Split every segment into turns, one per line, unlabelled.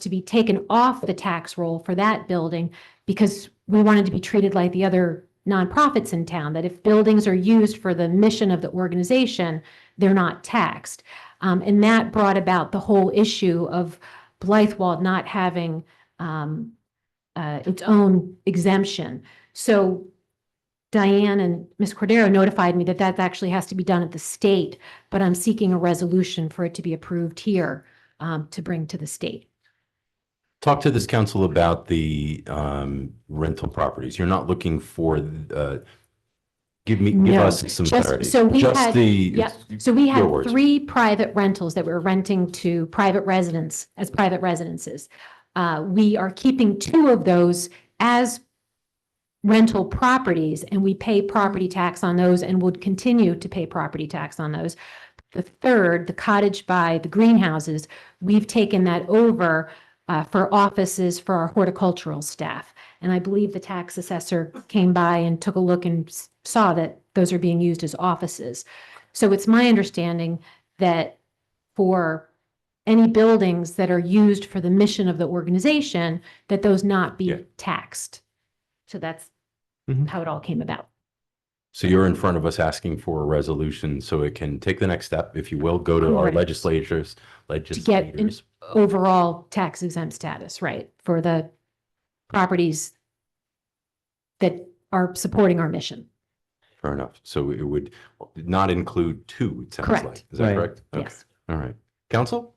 to be taken off the tax roll for that building because we wanted to be treated like the other nonprofits in town, that if buildings are used for the mission of the organization, they're not taxed. Um, and that brought about the whole issue of Blythewald not having, um, uh, its own exemption. So Diane and Ms. Cordero notified me that that actually has to be done at the state, but I'm seeking a resolution for it to be approved here, um, to bring to the state.
Talk to this council about the um, rental properties. You're not looking for, uh, give me, give
No,
us some
just-
clarity.
so we
Just
had-
the.
yeah, So we had
Your words.
three private rentals that we were renting to private residents as private residences. Uh, we are keeping two of those as rental properties and we pay property tax on those and would continue to pay property tax on those. The third, the cottage by the greenhouses, we've taken that over uh, for offices for our horticultural staff. And I believe the tax assessor came by and took a look and s- saw that those are being used as offices. So it's my understanding that for any buildings that are used for the mission of the organization, that those not
Yeah.
be taxed. So that's
Mhm.
how it all came about.
So you're in front of us asking for a resolution so it can take the next step, if you will, go to our
Correct.
legislatures,
get in-
legislators.
Overall tax exempt status, right, for the properties that are supporting our mission.
Fair enough. So it would not include two, it sounds
Correct.
like. Is that
Right.
correct? Okay.
Yes.
All right. Council?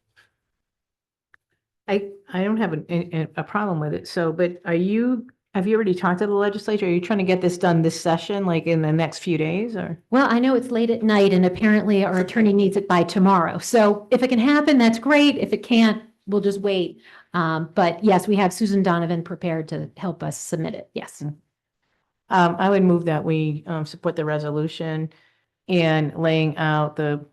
I, I don't have an- a, a problem with it, so, but are you, have you already talked to the legislature? Are you trying to get this done this session, like in the next few days, or?
Well, I know it's late at night and apparently our attorney needs it by tomorrow. So if it can happen, that's great. If it can't, we'll just wait. Um, but yes, we have Susan Donovan prepared to help us submit it. Yes.
Um, I would move that we, um, support the resolution and laying out the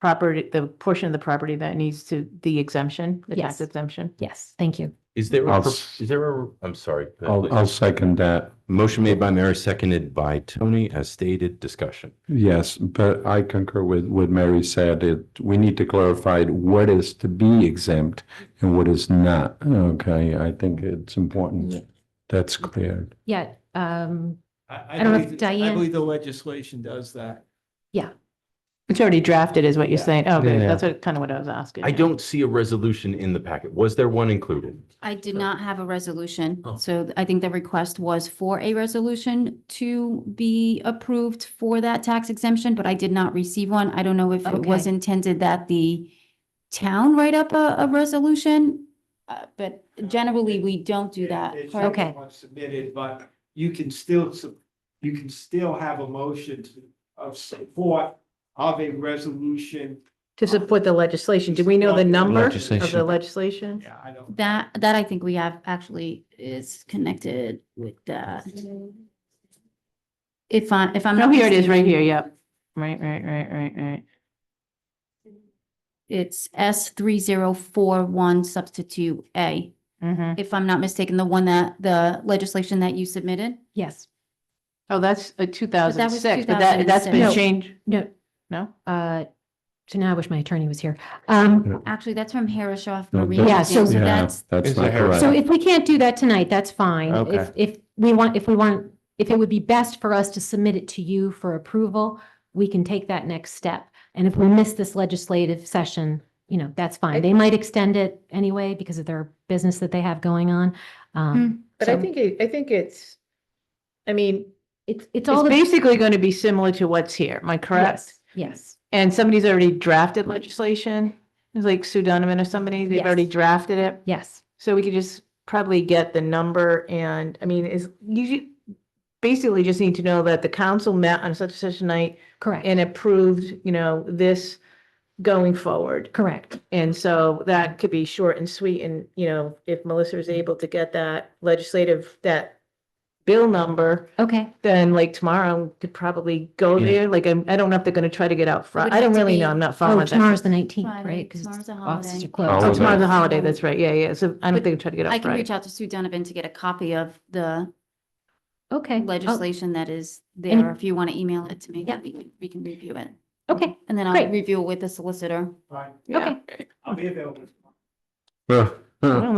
property, the portion of the property that needs to, the exemption, the
Yes.
tax exemption.
Yes, thank you.
Is there,
I'll
a pro-
s-
is there a, I'm sorry.
I'll, I'll second that,
Motion made by Mary, seconded by Tony, as stated, discussion.
yes, but I concur with what Mary said, it, we need to clarify what is to be exempt and what is not, okay, I think it's important. That's clear,
Yeah, um,
I,
I don't know if
believe-
Diane-
I believe the legislation does that.
It's already drafted is what you're
Yeah.
saying. Okay,
Yeah.
that's what, kind of what I was asking.
I don't see a resolution in the packet. Was there one included?
I did
So-
not have a resolution,
Oh.
so I think the request was for a resolution to be approved for that tax exemption, but I did not receive one. I don't know if it was
Okay.
intended that the town write up a, a resolution, uh, but generally, we don't do that.
It's
correct?
Okay.
not Submitted, but you can still, su- you can still have a motion to- of support of a resolution.
To support the legislation, do we know the number of the
Legislation.
legislation?
Yeah, I don't.
That, that I think we have actually is connected with that. If I, if I'm.
No,
not
Oh, here it is, right
mistaken,
here, yep. Right, right, right, right, right.
It's S three zero four one substitute A.
Mm-hmm.
if I'm not mistaken, the one that, the legislation that you submitted?
yes,
Oh, that's a two
was
thousand six, but that, that's
2006.
been
No.
changed,
no,
no?
uh, so now I wish my attorney was here. Um,
Actually, that's from Harrishoff
No,
Marine.
Yeah, so-
yeah,
that's,
that's
Is
not
there-
correct.
so if we can't do that tonight, that's fine.
Okay.
If, if we want, if we want, if it would be best for us to submit it to you for approval, we can take that next step. And if we miss this legislative session, you know, that's fine. They might extend it anyway because of their business that they have going on.
Hmm.
Um,
But I
so
think, it- I think it's, I mean,
It's, it's all.
it's
the-
basically going to be similar to what's here, am I correct?
Yes,
And somebody's already drafted legislation, it's like Sue Donovan or somebody, they've
Yes.
already drafted it.
yes.
So we could just probably get the number and, I mean, is, you ju- basically just need to know that the council met on such and such a night
Correct,
and approved, you know, this going forward.
correct.
And so that could be short and sweet and, you know, if Melissa
Mm-hmm.
is able to get that legislative, that bill number,
Okay,
then like tomorrow could probably go
Yeah.
there. Like, I'm, I don't know if they're gonna try to get out front.
would
I
have
don't
to
really know.
be-
I'm not following
oh,
that.
tomorrow's the nineteenth,
Friday.
right? 'Cause
Tomorrow's a
Offices
holiday.
are closed.
Holiday.
Oh, tomorrow's a
Holiday.
holiday. That's right. Yeah, yeah. So I don't
But
think they're trying to get
I
out
can reach
Friday.
out to Sue Donovan to get a copy of the
Okay. Oh,
legislation that is
Any-
there. If you want to email it to me,
Yeah.
we can, we can review it.
Okay,
And then I'll
Great.
review it with the solicitor.
Right,
Yeah.
okay.
I'll be available.
Well,